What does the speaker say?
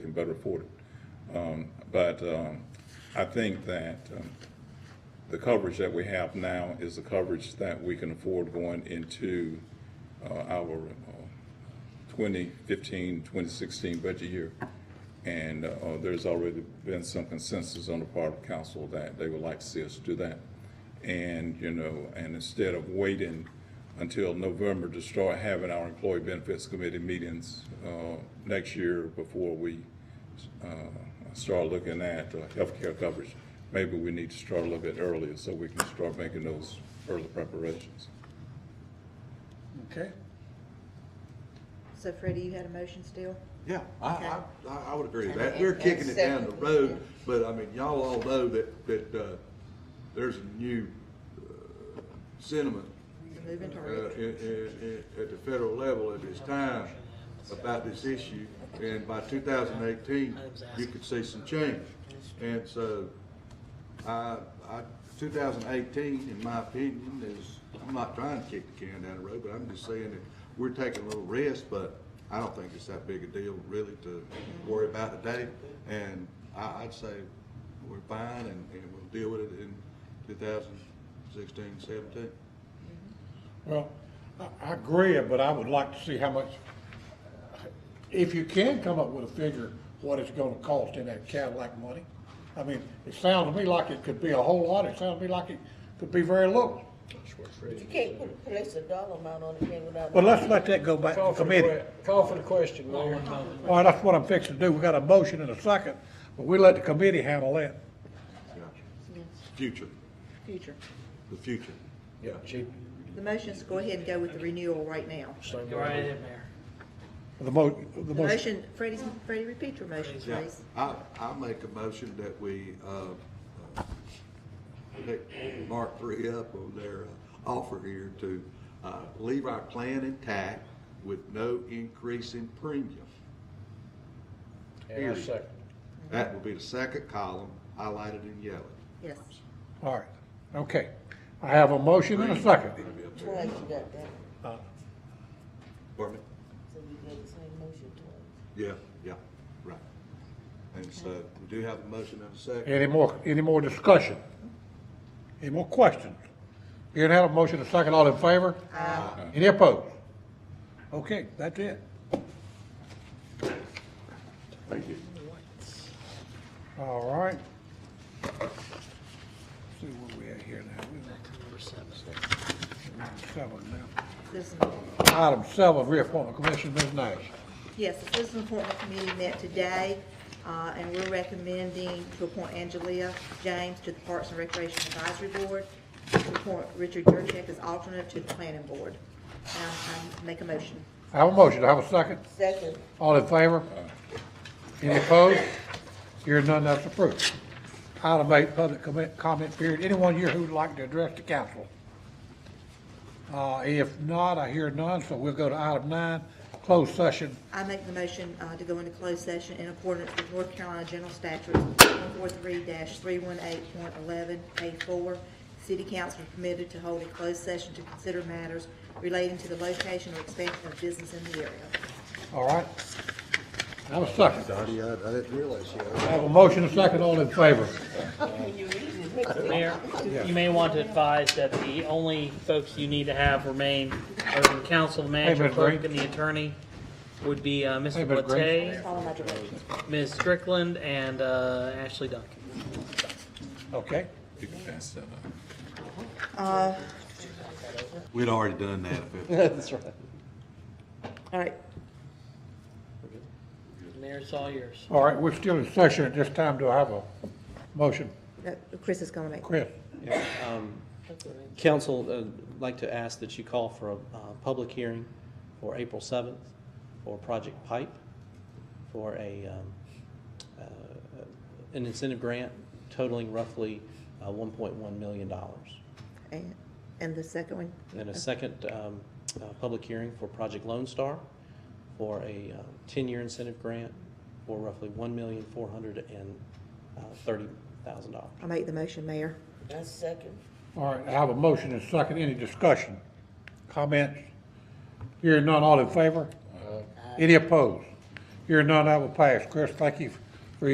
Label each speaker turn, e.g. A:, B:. A: can better afford it. Um, But um, I think that um, the coverage that we have now is the coverage that we can afford going into uh, our uh, 2015, 2016 budget year. And uh, there's already been some consensus on the part of council that they would like to see us do that. And, you know, and instead of waiting until November to start having our employee benefits committee meetings uh, next year before we uh, start looking at uh, healthcare coverage, maybe we need to start a little bit earlier so we can start making those early preparations.
B: Okay.
C: So Freddie, you had a motion still?
D: Yeah, I,
C: Okay.
D: I, I- I would agree with
C: And-
D: that. We're
C: and-
D: kicking
C: and
D: it down the
C: second, yeah.
D: road, but I mean, y'all all know that, that, uh, there's a new uh, sentiment
C: We're Moving to
D: uh,
C: retro.
D: in- in- in- at the federal level at this time about this issue, and by 2018, you could see some change. And so, I, I, 2018, in my opinion, is, I'm not trying to kick the can down the road, but I'm just saying that we're taking a little risk, but I don't think it's that big a deal really to worry about today. And I, I'd say we're fine and, and we'll deal with it in 2016, 17.
B: Well, I, I agree, but I would like to see how much, if you can come up with a figure, what it's gonna cost in that Cadillac money. I mean, it sounds to me like it could be a whole lot, it sounds to me like it could be very little.
E: You can't put, place a dollar amount on it, can without.
B: But let's let that go back to
F: Call for the
B: committee.
F: que- Call for the question, Mayor.
B: All right, that's what I'm fixing to do, we got a motion and a second, but we let the committee handle that.
C: Yes.
D: Future,
C: Future.
D: the future.
F: Yeah, chief.
C: The motion's to go ahead and go with the renewal right now.
F: same
G: Go
F: way.
G: right ahead, Mayor.
B: The mo, the
C: The
B: motion,
C: motion, Freddie's, Freddie, repeat your motion,
D: Yeah,
C: please.
D: I, I make a motion that we, uh, uh, pick Mark Three up on their uh, offer here to, uh, leave our plan intact with no increase in premium.
F: And I second.
D: That will be the second column highlighted in yellow.
C: Yes.
B: all right, okay. I have a motion and a second.
D: It'll be up there.
E: Twice you got that,
D: Pardon me?
E: so you did the same motion twice.
D: Yeah, yeah, right. And so we do have a motion and a second.
B: Any more, any more discussion? Any more questions? Hearing none, a motion to second, all in favor? Aye. Any opposed? Okay, that's it.
D: Thank you.
B: All right. See where we at here now. We're on Seven now.
C: Citizen,
B: Item seven, reappointment commission, Ms. Nash.
C: yes, the Citizen Appointment Committee met today, uh, and we're recommending to appoint Angelia James to the Parks and Recreation Advisory Board, to appoint Richard Jurcheck as alternate to the Planning Board. Um, I make a motion.
B: I have a motion, I have a second,
E: Second,
B: all in favor? Any opposed? Hearing none, that's approved. Item eight, public comment, comment period, anyone here who would like to address the council? Uh, if not, I hear none, so we'll go to item nine, closed session.
C: I make the motion uh, to go into closed session in accordance with North Carolina General Statutes 143-318.11A4. City council is permitted to hold a closed session to consider matters relating to the location or expansion of business in the area.
B: All right? I have a second.
D: Dottie, I, I didn't realize you.
B: I have a motion, a second, all in favor?
E: when you read it, it makes me-
G: Mayor, you may want to advise that the only folks you need to have remain are the council, the manager,
B: Ms.
G: clerk,
B: Green.
G: and the attorney would be uh,
B: Hey,
G: Mr.
B: Ms. Green.
G: Blatte,
C: Follow my directions.
G: Ms. Strickland, and uh, Ashley Duncan.
B: Okay?
A: You can pass that on.
C: Uh,
D: We'd already done that. if it-
C: All right,
G: Mayor, it's all yours.
B: All right, we're still in session at this time, do I have a motion?
C: Now, Chris is going to make.
B: Chris?
H: Council, uh, would like to ask that you call for a uh, public hearing for April 7th for Project Pipe, for a, um, uh, an incentive grant totaling roughly uh, $1.1 million.
C: And- And the second one?
H: And a second um, uh, public hearing for Project Lone Star for a uh, 10-year incentive grant for roughly uh, $1,430,000.
C: I make the motion, Mayor.
E: I second.
B: All right, I have a motion and a second, any discussion? Comments? Hearing none, all in favor? Any opposed? Here none, I will pass. Chris, thank you